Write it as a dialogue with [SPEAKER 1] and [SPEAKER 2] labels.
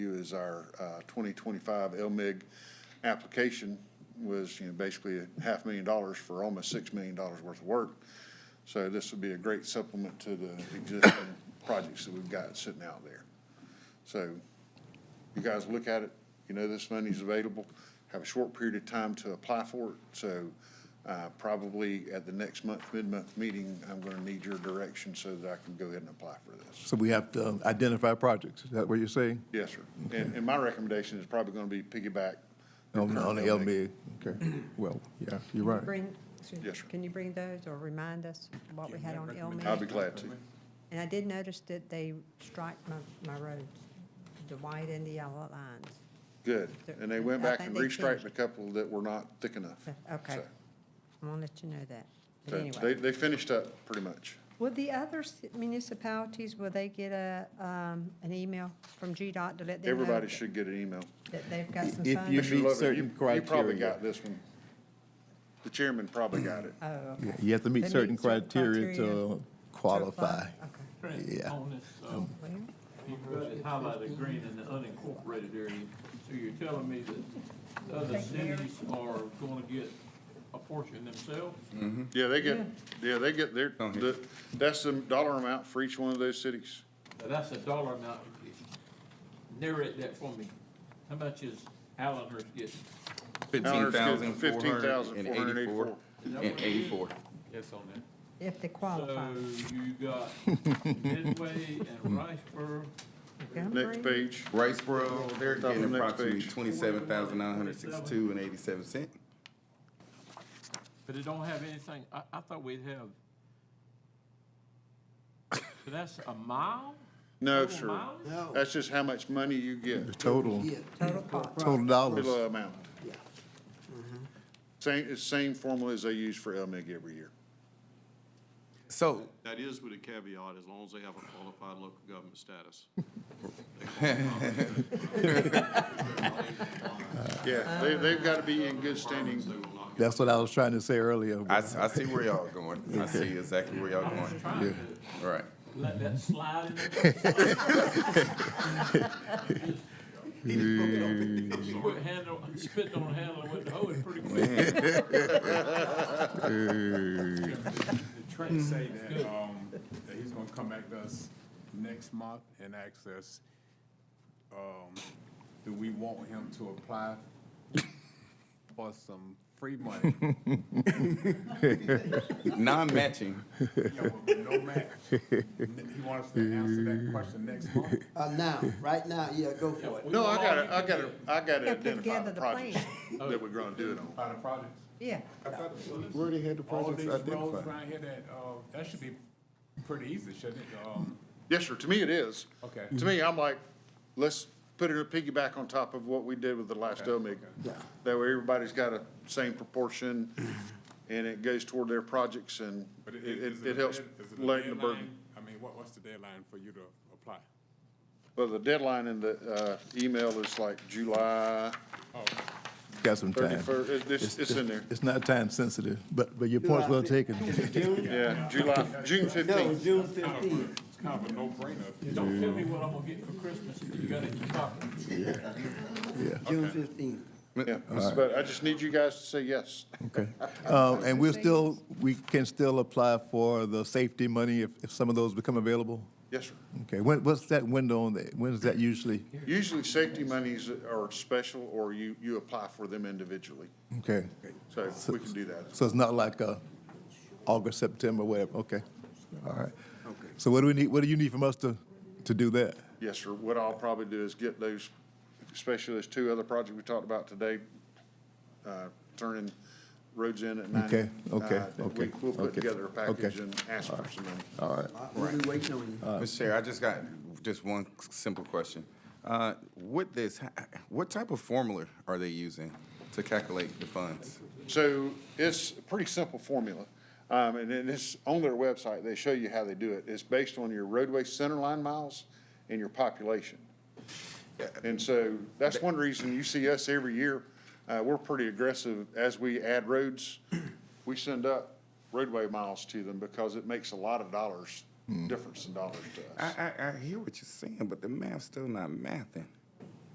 [SPEAKER 1] is our uh, 2025 LMIG application was, you know, basically a half million dollars for almost $6 million worth of work. So this would be a great supplement to the existing projects that we've got sitting out there. So you guys look at it, you know this money's available, have a short period of time to apply for it. So uh, probably at the next month, mid-month meeting, I'm going to need your direction so that I can go ahead and apply for this.
[SPEAKER 2] So we have to identify projects, is that what you're saying?
[SPEAKER 1] Yes, sir. And, and my recommendation is probably going to be piggyback. your
[SPEAKER 2] On,
[SPEAKER 1] current
[SPEAKER 2] on the LMIG, okay, well, yeah, you're right.
[SPEAKER 3] Bring, excuse me,
[SPEAKER 1] Yes, sir.
[SPEAKER 3] can you bring those or remind us what we had on
[SPEAKER 1] I'll
[SPEAKER 3] Elm?
[SPEAKER 1] be glad to.
[SPEAKER 3] And I did notice that they strike my, my roads, the white and the yellow lines.
[SPEAKER 1] Good. And they went
[SPEAKER 3] I
[SPEAKER 1] back
[SPEAKER 3] think
[SPEAKER 1] and
[SPEAKER 3] they
[SPEAKER 1] restriped
[SPEAKER 3] changed.
[SPEAKER 1] a couple that were not thick enough.
[SPEAKER 3] So, Okay,
[SPEAKER 1] So-
[SPEAKER 3] I'm gonna let you know that. But
[SPEAKER 1] So They,
[SPEAKER 3] anyway,
[SPEAKER 1] they finished up pretty much.
[SPEAKER 3] will the other ci- municipalities, will they get a, um, an email from GDOT to let them know?
[SPEAKER 1] Everybody
[SPEAKER 3] that-
[SPEAKER 1] should get an email.
[SPEAKER 3] That they've got some
[SPEAKER 2] If you
[SPEAKER 3] funds?
[SPEAKER 1] Mr.
[SPEAKER 2] meet
[SPEAKER 1] Lovett,
[SPEAKER 2] certain
[SPEAKER 1] you- You probably
[SPEAKER 2] criteria.
[SPEAKER 1] got this one. The chairman probably got it.
[SPEAKER 3] Oh, okay.
[SPEAKER 2] Yeah, You have to meet
[SPEAKER 3] They meet
[SPEAKER 2] certain
[SPEAKER 3] certain
[SPEAKER 2] criteria
[SPEAKER 3] criteria
[SPEAKER 2] to qualify.
[SPEAKER 3] Okay.
[SPEAKER 4] Trent,
[SPEAKER 2] Yeah.
[SPEAKER 4] on this, um,
[SPEAKER 3] Well,
[SPEAKER 4] you just highlighted green in the unincorporated area. So you're telling me that the other cities are gonna get a portion themselves?
[SPEAKER 1] Yeah, they get, yeah, they get their,
[SPEAKER 5] Oh, yeah.
[SPEAKER 1] the, that's the dollar amount for each one of those cities.
[SPEAKER 4] Now, that's a dollar amount. Narrate that for me. How much is Allenhurst getting?
[SPEAKER 5] Fifteen thousand four hundred and
[SPEAKER 1] $15,484.
[SPEAKER 5] eighty-four. And eighty-four.
[SPEAKER 4] Yes, on that.
[SPEAKER 3] If they
[SPEAKER 4] So
[SPEAKER 3] qualify.
[SPEAKER 4] you got Midway and Riceboro.
[SPEAKER 1] Next
[SPEAKER 3] Montgomery?
[SPEAKER 1] page.
[SPEAKER 5] Riceboro, they're
[SPEAKER 1] Top of the
[SPEAKER 5] getting
[SPEAKER 1] next
[SPEAKER 5] approximately
[SPEAKER 1] page.
[SPEAKER 5] twenty-seven thousand nine hundred sixty-two and eighty-seven cent.
[SPEAKER 4] But it don't have anything, I, I thought we'd have. So that's a mile?
[SPEAKER 1] No,
[SPEAKER 4] Total
[SPEAKER 1] sir.
[SPEAKER 4] miles?
[SPEAKER 1] That's just how much money you get,
[SPEAKER 2] The total,
[SPEAKER 3] Total cost.
[SPEAKER 2] total dollars.
[SPEAKER 1] total amount. Same, it's same formula as they use for LMIG every year.
[SPEAKER 5] So,
[SPEAKER 6] That is with a caveat, as long as they have a qualified local government status.
[SPEAKER 1] Yeah, they, they've got to be in good standing.
[SPEAKER 6] They will not get
[SPEAKER 2] That's what I was trying to say earlier.
[SPEAKER 5] I, s- I see where y'all going. I see exactly where y'all
[SPEAKER 4] I was
[SPEAKER 5] going.
[SPEAKER 4] trying to
[SPEAKER 5] All right.
[SPEAKER 4] let that slide in there. You quit handle, spitting on the handle with the hose pretty quick.
[SPEAKER 7] Trent say that, um, that he's gonna come back to us next month and ask us, um, do we want him to apply for some free money?
[SPEAKER 5] Non-matching.
[SPEAKER 7] Yeah, with No match. He wants us to answer that question next month.
[SPEAKER 8] Uh, now, right now, yeah, go for it.
[SPEAKER 1] No, I gotta, I gotta, I gotta
[SPEAKER 3] Yeah, put
[SPEAKER 1] identify
[SPEAKER 3] together
[SPEAKER 1] the
[SPEAKER 3] the
[SPEAKER 1] projects that we're gonna do it on.
[SPEAKER 7] By the projects.
[SPEAKER 3] Yeah.
[SPEAKER 2] Where they had the
[SPEAKER 7] All these roads around here that, uh, that should be pretty easy, shouldn't it? Um,
[SPEAKER 1] Yes, sir, to me it is.
[SPEAKER 7] Okay.
[SPEAKER 1] To me, I'm like, let's put it a piggyback on top of what we did with the last OMIG. That way everybody's got a same proportion and it goes toward their projects and
[SPEAKER 7] but
[SPEAKER 1] it,
[SPEAKER 7] is-
[SPEAKER 1] it,
[SPEAKER 7] is
[SPEAKER 1] it
[SPEAKER 7] a
[SPEAKER 1] helps
[SPEAKER 7] dead- is it a
[SPEAKER 1] lighten the burden.
[SPEAKER 7] deadline? I mean, what, what's the deadline for you to apply?
[SPEAKER 1] Well, the deadline in the, uh, email is like July
[SPEAKER 2] Got some time.
[SPEAKER 1] thirty-first, it's, it's in there.
[SPEAKER 2] It's not time sensitive, but, but your point's well taken.
[SPEAKER 1] Yeah, July, June
[SPEAKER 8] No,
[SPEAKER 1] fifteenth.
[SPEAKER 8] June fifteenth.
[SPEAKER 7] It's kind of a no-brainer. if you
[SPEAKER 4] Don't tell me what I'm gonna get for Christmas, you got it in your pocket.
[SPEAKER 8] June fifteenth.
[SPEAKER 1] Yeah, but I just need you guys to say yes.
[SPEAKER 2] Okay. Um, and we're still, we can still apply for the safety money if, if some of those become available?
[SPEAKER 1] Yes, sir.
[SPEAKER 2] Okay, when, what's that window on that, when is that usually?
[SPEAKER 1] Usually, safety monies are special, or you, you apply for them individually,
[SPEAKER 2] Okay,
[SPEAKER 1] so we can do that.
[SPEAKER 2] so it's not like, uh, August, September, whatever, okay, all right. So what do we need, what do you need from us to, to do that?
[SPEAKER 1] Yes, sir, what I'll probably do is get those, especially those two other projects we talked about today, uh, turning roads in at ninety.
[SPEAKER 2] Okay, okay,
[SPEAKER 1] uh, we-
[SPEAKER 2] okay,
[SPEAKER 1] We'll put
[SPEAKER 2] okay,
[SPEAKER 1] together a package
[SPEAKER 2] okay.
[SPEAKER 1] and ask for some money.
[SPEAKER 8] We'll be waiting on you.
[SPEAKER 5] Mr. Chair, I just got just one simple question. Uh, with this, h- what type of formula are they using to calculate the funds?
[SPEAKER 1] So it's a pretty simple formula, um, and then it's on their website, they show you how they do it. It's based on your roadway center line miles and your population. And so that's one reason you see us every year, uh, we're pretty aggressive as we add roads. We send up roadway miles to them because it makes a lot of dollars, difference in dollars to
[SPEAKER 5] I,
[SPEAKER 1] us.
[SPEAKER 5] I, I hear what you're saying, but the math's still not mathing.